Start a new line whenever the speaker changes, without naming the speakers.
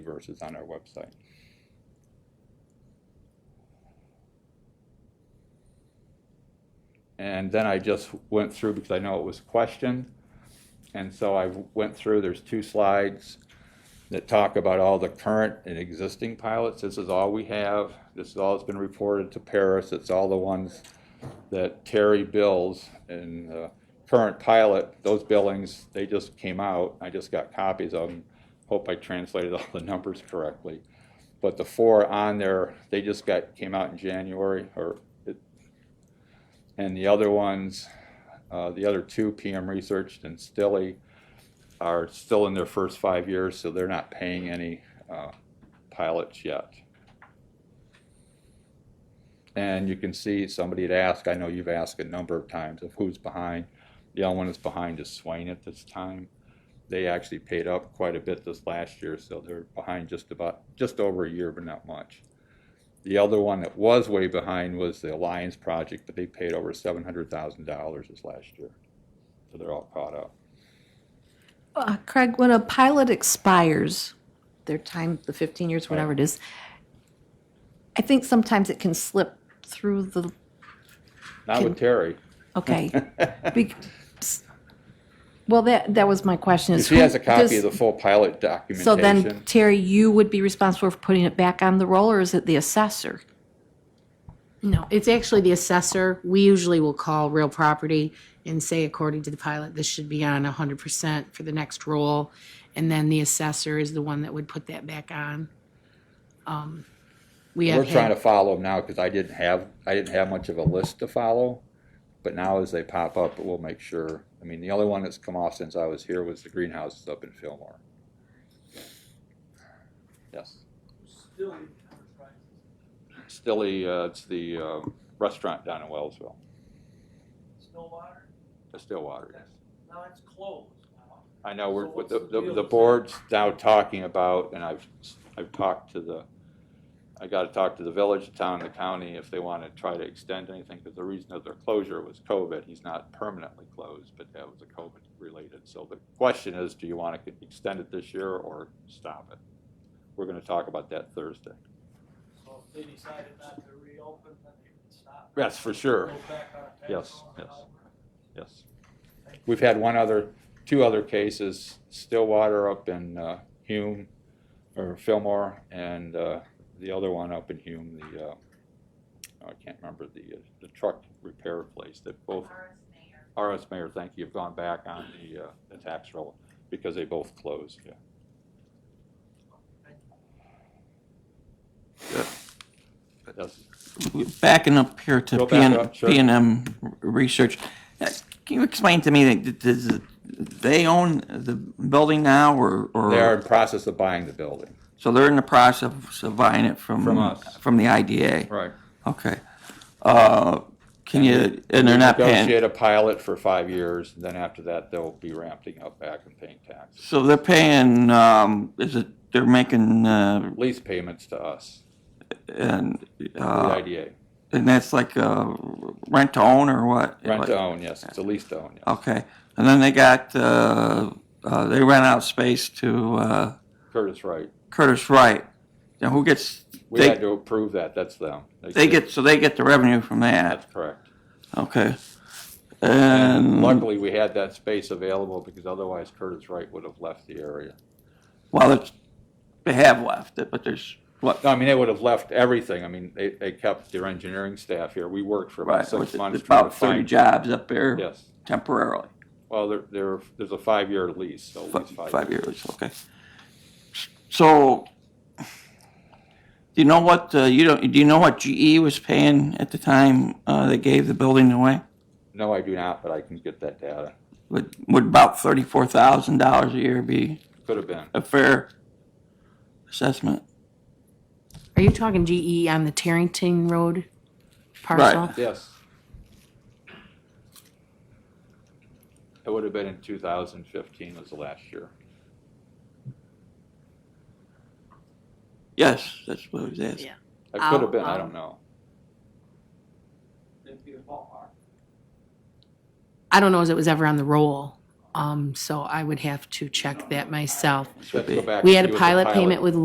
resources on our website. And then I just went through because I know it was questioned. And so I went through, there's two slides that talk about all the current and existing pilots. This is all we have. This is all that's been reported to Paris. It's all the ones that Terry bills and the current pilot, those billings, they just came out. I just got copies of them. Hope I translated all the numbers correctly. But the four on there, they just got, came out in January or it, and the other ones, uh, the other two, PM Researched and Stilly, are still in their first five years, so they're not paying any uh, pilots yet. And you can see, somebody had asked, I know you've asked a number of times of who's behind. The only one that's behind is Swain at this time. They actually paid up quite a bit this last year, so they're behind just about, just over a year, but not much. The other one that was way behind was the Alliance project, but they paid over seven hundred thousand dollars this last year. So they're all caught up.
Uh, Craig, when a pilot expires, their time, the 15 years, whatever it is, I think sometimes it can slip through the,
Not with Terry.
okay. Bec- s- Well, that, that was my question is.
She has a
who
copy
does-
of the full pilot
So then,
documentation.
Terry, you would be responsible for putting it back on the roll, or is it the assessor?
No, it's actually the assessor. We usually will call real property and say, according to the pilot, this should be on hundred percent for the next roll. And then the assessor is the one that would put that back on. Um, We
We're
have
trying to
had,
follow them now because I didn't have, I didn't have much of a list to follow. But now as they pop up, we'll make sure. I mean, the only one that's come off since I was here was the greenhouses up in Fillmore. Yes. Stilly, uh, it's the um, restaurant down in Wellsville,
Stillwater,
the Stillwater. yes.
now it's closed now.
I know, we're,
So
with
what's
the,
the
the,
deal
the
with that?
board's now talking about, and I've, I've talked to the, I gotta talk to the village, the town, the county, if they wanna try to extend anything, because the reason of their closure was COVID, he's not permanently closed, but that was a COVID related, so the question is, do you wanna extend it this year or stop it? We're gonna talk about that Thursday.
So if they decided not to reopen, then they could stop.
Yes, for sure,
Go back on a
Yes,
patrol and
yes.
all
yes. We've had one other, two other cases, Stillwater up in uh, Hume, or Fillmore, and uh, the other one up in Hume, the, uh, oh, I can't remember, the, uh, the truck repair place that both, RS Mayor, thank you, have gone back on the, uh, the tax roll because they both closed, yeah. Yes.
Backing up here
Go
to P
back
and,
up, sure.
P and M Research, uh, can you explain to me that, does, it- they own the building now or? or-
They are in process of buying the building.
So they're in the process of buying it from?
From us.
From the IDA?
Right.
Okay. Uh, can you, and they're not paying,
Negotiate a pilot for five years, and then after that, they'll be ramping up back and paying taxes.
so they're paying, um, is it, they're making, uh,
Lease payments to us,
and,
the
uh,
IDA.
and that's like, uh, rent to own or what?
Rent to
Like- Oh.
own, yes, it's a lease to own, yes.
Okay, and then they got, uh, uh, they rent out space to, uh,
Curtis Wright.
Curtis Wright. Now who gets,
We had
they,
to approve that, that's them.
they get, so they get the revenue from that,
That's correct.
okay.
And
And
luckily, we had that space available because otherwise Curtis Wright would have left the area.
well, it's, they have left it, but there's, what,
No, I mean, they would have left everything. I mean, they, they kept their engineering staff here. We worked for about
right,
six
with
months. trying
about
to
thirty
find-
jobs up there
Yes.
temporarily,
Well, there, there, there's a five-year lease, so at
fi-
least five.
five years, okay. So, do you know what, uh, you don't, do you know what GE was paying at the time, uh, they gave the building away?
No, I do not, but I can get that data.
Would, would about thirty-four thousand dollars a year be
Could have been.
a fair assessment?
are you talking GE on the Tarrington Road parcel?
Right.
Yes. It would have been in 2015 was the last year.
Yes, that's what it is.
Yeah.
It could
Ow,
have been, I
ow.
don't know.
It'd be a ballpark.
I don't know if it was ever on the roll, um, so I would have to check that myself.
Let's go back
We
and
had
see what
a
the
pilot payment with